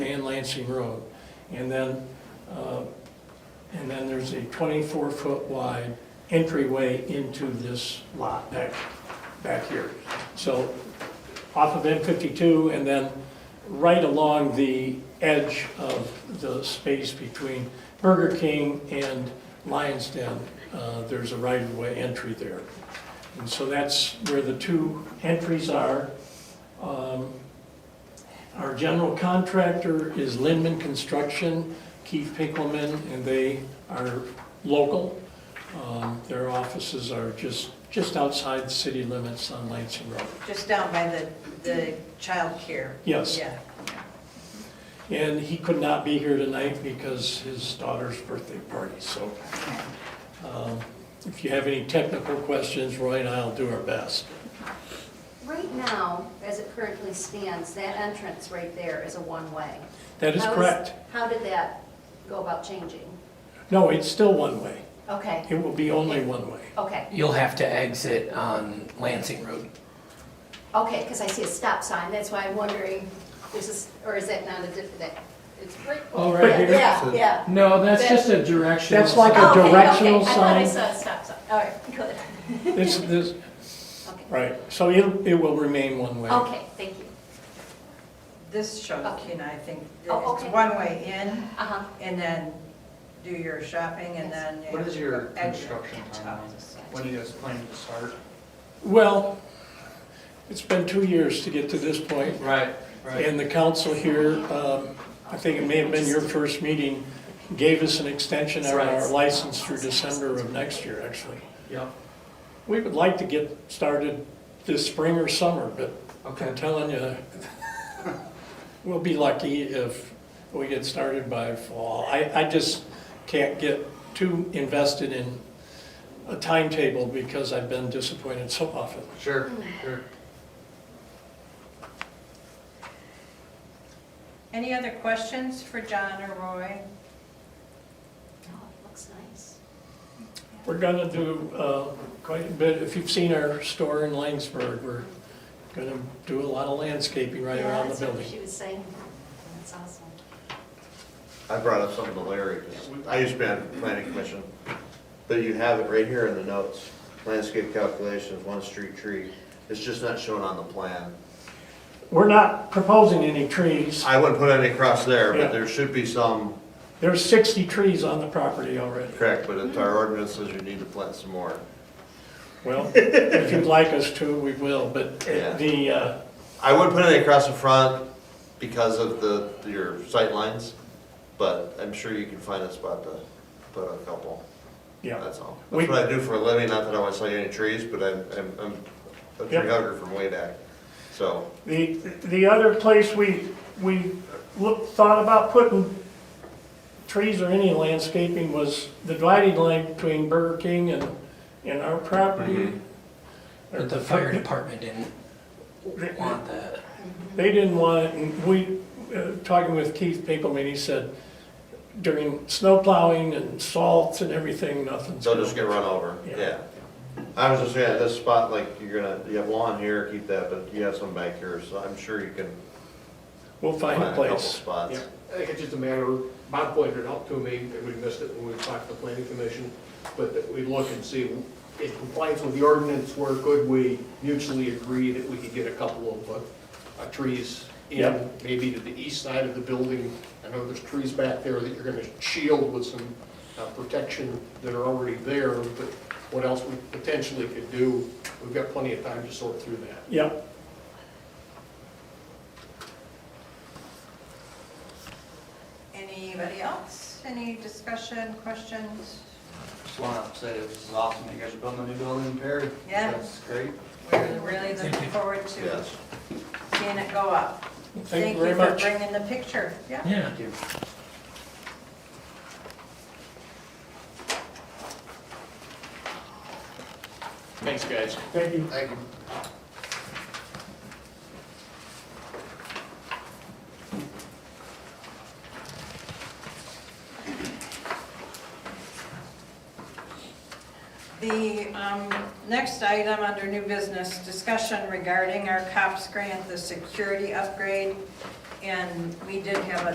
Lansing Road. And then, uh, and then there's a 24-foot wide entryway into this lot back, back here. So off of M52 and then right along the edge of the space between Burger King and Lion's Den, uh, there's a right-of-way entry there. And so that's where the two entries are. Um, Our general contractor is Lindman Construction, Keith Pinkelman, and they are local. Um, Their offices are just, just outside the city limits on Lansing Road. Just down by the, the childcare. Yes. Yeah. And he could not be here tonight because his daughter's birthday party, so. um, If you have any technical questions, Roy and I'll do our best. Right now, as it currently stands, that entrance right there is a one-way. That is How correct. How did that go about changing? No, it's still one way. Okay, It will be only one way. okay, You'll have to exit on Lansing Road. okay, because I see a stop sign, that's why I'm wondering, is this, or is that not a different, that, it's right. Oh, right Yeah, here. Yeah, yeah. No, that's That- just a directional. That's like a- sign. Okay, okay, directional I thought I sign. saw a stop sign, all right, good, It's, this, okay. right, so it, it will remain one way. Okay, thank you, This shows, you know, I think, Oh, it's okay. one way in uh-huh, and then do your shopping and then. What is your exit. construction timeline? When do you guys plan to start? Well, it's been two years to get to this point, Right, and the council here, um, I think it may have been your first meeting, gave us an extension of our license through December of next year, actually. Yep, We would like to get started this spring or summer, but okay. I'm telling you, we'll be lucky if we get started by fall. I, I just can't get too invested in a timetable because I've been disappointed so often. Sure, sure. Any other questions for John or Roy? oh, it looks nice. We're gonna do uh, quite a bit, if you've seen our store in Langsberg, we're gonna do a lot of landscaping right Yeah, around the that's what building. She was saying, that's awesome. I brought up something to Larry, 'cause I used to be on the planning commission, but you have it right here in the notes. Landscape calculations, one street tree, it's just not shown on the plan. We're not proposing any trees. I wouldn't put any across there, Yeah. but there should be some, There's 60 trees on the property already. correct, but it's our ordinance says you need to plant some more. Well, if you'd like us to, we will, but Yeah. the, uh, I wouldn't put any across the front because of the, your sight lines, but I'm sure you can find a spot to put a couple. yeah. That's all. We- That's what I do for a living, not that I want to sell you any trees, but I'm, I'm- I'm a tree Yep. hugger from way back, so. The, the other place we, we looked, thought about putting, Trees or any landscaping was the dividing line between Burger King and, and our property. Or But the fire department didn't They- want that. They didn't want it, and we, uh, talking with Keith Pinkelman, he said during snow plowing and salts and everything, nothing's. They'll just get run over, Yeah. yeah. I was just saying, at this spot, like, you're gonna, you have lawn here, keep that, but you have some back here, so I'm sure you can We'll find find a a couple place. spots. Yeah. I think it's just a matter, of Bob pointed it out to me, and we missed it when we talked to the planning commission, but that we look and see, in compliance with the ordinance, where could we mutually agree that we could get a couple of, uh, uh, trees Yeah. in, maybe to the east side of the building, I know there's trees back there that you're gonna shield with some, uh, protection that are already there, but what else we potentially could do, we've got plenty of time to sort through that. Yeah, Anybody else? Any discussion, questions? Just want to say this is awesome. You guys are building a new building in Perry. Yeah. That's great. We're really looking forward to Yes. seeing it go up. thank you very much. for bringing the picture, yeah. Yeah. Thank you. Thanks, guys. thank you, Thank you. The um, next item under new business, discussion regarding our COPS grant, the security upgrade. And we did have a